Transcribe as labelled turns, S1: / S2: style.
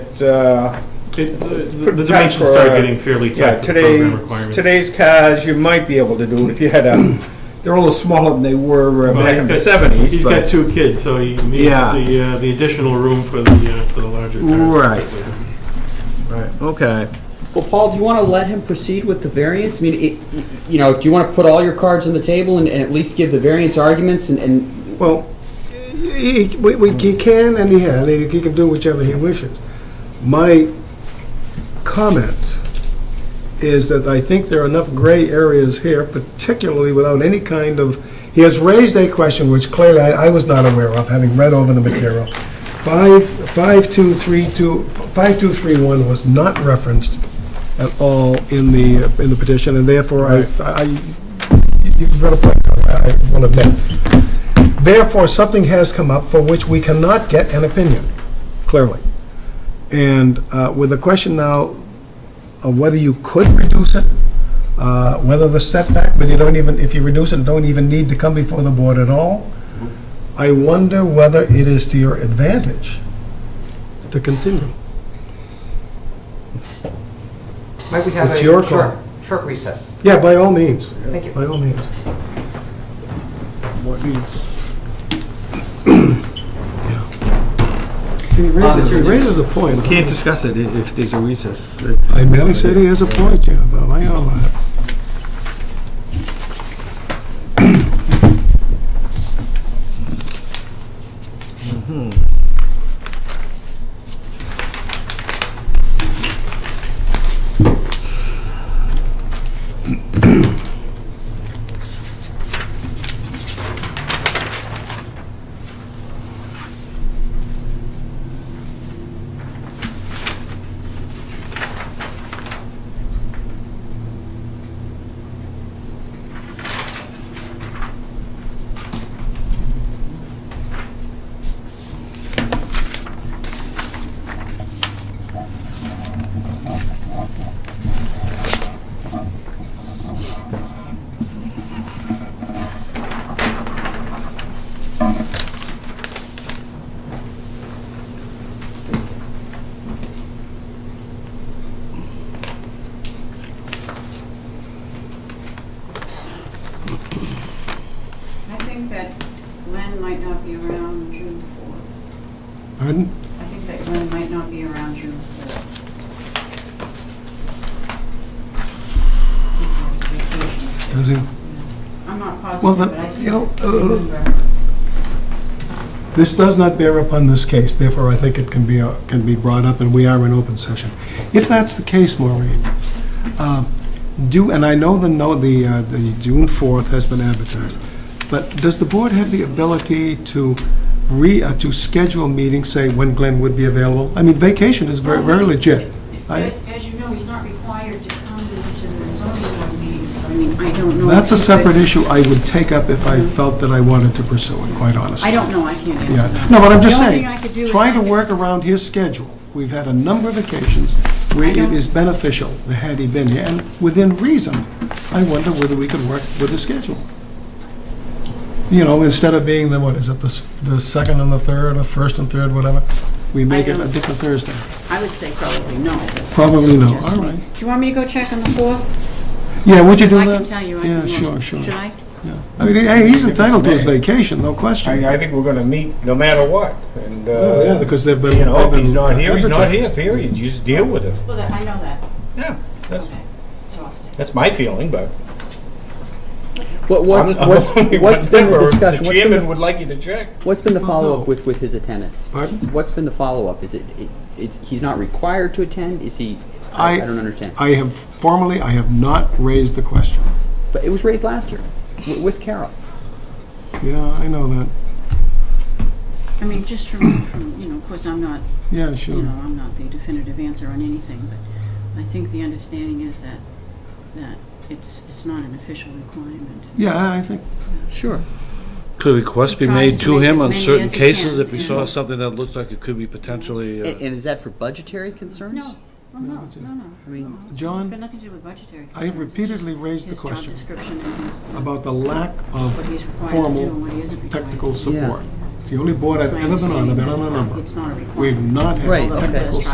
S1: uh,
S2: It- The the
S1: Protect
S2: dimensions
S1: for,
S2: start
S1: uh,
S2: getting fairly
S1: yeah,
S2: tight for program
S1: today,
S2: requirements.
S1: today's cars, you might be able to do it if you had a, they're a little smaller than they were uh,
S2: Well,
S1: back
S2: he's
S1: in the
S2: got-
S1: seventies.
S2: He's got two kids, so he needs
S1: Yeah.
S2: the, uh, the additional room for the, uh, for the larger cars.
S1: Right. Okay.
S3: Well, Paul, do you want to let him proceed with the variance? I mean, it, you know, do you want to put all your cards on the table and, and at least give the variance arguments and, and
S4: Well, he, he- we, we, he can and he has, and he can do whichever he wishes. My comment is that I think there are enough gray areas here, particularly without any kind of, he has raised a question which clearly I, I was not aware of, having read over the material. Five, five, two, three, two, five, two, three, one was not referenced at all in the, in the petition, and therefore I, I, you've got a point, I I will admit. Therefore, something has come up for which we cannot get an opinion, clearly. And uh, with the question now of whether you could reduce it, uh, whether the setback, but you don't even, if you reduce it, don't even need to come before the board at all, I wonder whether it is to your advantage to continue.
S5: Might we have
S4: It's your
S5: a
S4: call.
S5: short, short recess?
S4: Yeah, by all means,
S5: Thank you.
S4: by all means.
S1: What is?
S4: He raises, he
S3: Um,
S4: raises a point.
S1: Can't discuss it i- if there's a recess.
S4: I merely said he has a point, yeah, but I, uh,
S6: I think that Glenn might not be around June 4th.
S4: pardon?
S6: I think that Glenn might not be around June 4th. I think that's a vacation.
S4: Does he?
S6: I'm not
S4: Well,
S6: positive,
S4: then,
S6: but I see.
S4: you know,
S6: I
S4: uh,
S6: remember.
S4: This does not bear upon this case, therefore I think it can be, uh, can be brought up, and we are in open session. If that's the case, Maureen, um, do, and I know the, no, the, uh, the June 4th has been advertised, but does the board have the ability to re, uh, to schedule meetings, say, when Glenn would be available? I mean, vacation is very, very legit. I-
S6: But As you know, he's not required to come to the zoning board meetings, so I mean, I don't know.
S4: That's a
S6: if-
S4: separate issue I would take up if I felt that I wanted to pursue it, quite honestly.
S6: I don't know, I can't answer
S4: Yeah,
S6: that.
S4: no, but I'm just
S6: The only
S4: saying,
S6: thing I could do is
S4: trying to
S6: I-
S4: work around his schedule. We've had a number of occasions where
S6: I
S4: it
S6: don't-
S4: is beneficial, had he been here, and within reason, I wonder whether we could work with his schedule. You know, instead of being the, what is it, the, s- the second and the third, or first and third, whatever, we make it a
S6: don't-
S4: different Thursday.
S6: I would say probably no. but-
S4: Probably no,
S6: Just-
S4: all right.
S6: Do you want me to go check on the 4th?
S4: Yeah, would you do
S6: I
S4: that?
S6: can tell you. I
S4: Yeah,
S6: can-
S4: sure, sure.
S6: Should I?
S4: Yeah. I mean, hey, he's entitled to his
S1: Maybe.
S4: vacation, no question.
S1: I, I think we're gonna meet no matter what, and,
S4: Oh, Yeah,
S1: uh,
S4: because they've been.
S1: you know, if
S4: they've
S1: he's
S4: been
S1: not here, he's not here,
S4: advertised.
S1: period, you just deal with it.
S6: Well, that- I know that.
S1: Yeah, that's,
S6: Okay, so I'll stay.
S1: that's my feeling, but.
S3: what, what's,
S1: I'm the
S3: what's,
S1: only
S3: what's
S1: one
S3: been the
S1: member.
S3: discussion?
S1: The
S3: What's been
S1: chairman
S3: the,
S1: would like you to check.
S3: what's been the
S4: Oh, no.
S3: follow-up with, with his attendance?
S4: Pardon?
S3: What's been the follow-up? Is it, it, it's, he's not required to attend? Is he, I,
S4: I-
S3: I don't understand.
S4: I have formally, I have not raised the question.
S3: But it was raised last year wi- with Carol.
S4: Yeah, I know that.
S6: I mean, just from, from, you know, of course, I'm not,
S4: Yeah,
S6: you know,
S4: sure.
S6: I'm not the definitive answer on anything, but I think the understanding is that, that it's, it's not an official requirement.
S4: Yeah, I think,
S3: Sure.
S7: Could a request be
S6: Tries
S7: made
S6: to
S7: to
S6: make
S7: him
S6: as
S7: on
S6: many
S7: certain
S6: as he can,
S7: cases if we
S6: yeah.
S7: saw something that looked like it could be potentially,
S3: And,
S7: uh,
S3: and is that for budgetary concerns?
S6: No, no, no,
S4: it's just-
S6: no, no.
S3: I mean,
S6: It's got
S4: John,
S6: nothing to do with budgetary.
S4: I have
S6: concerns. It's just
S4: repeatedly raised the
S6: his job
S4: question
S6: description and his, uh,
S4: about the lack
S6: what he's
S4: of
S6: required to do and
S4: formal
S6: what he isn't required to do.
S4: technical support. It's the only board I've
S6: It's my
S4: ever been on, I've been on a
S6: understanding that
S4: number.
S6: It's not a requirement.
S4: We've not
S3: Right,
S4: had
S3: okay.
S4: technical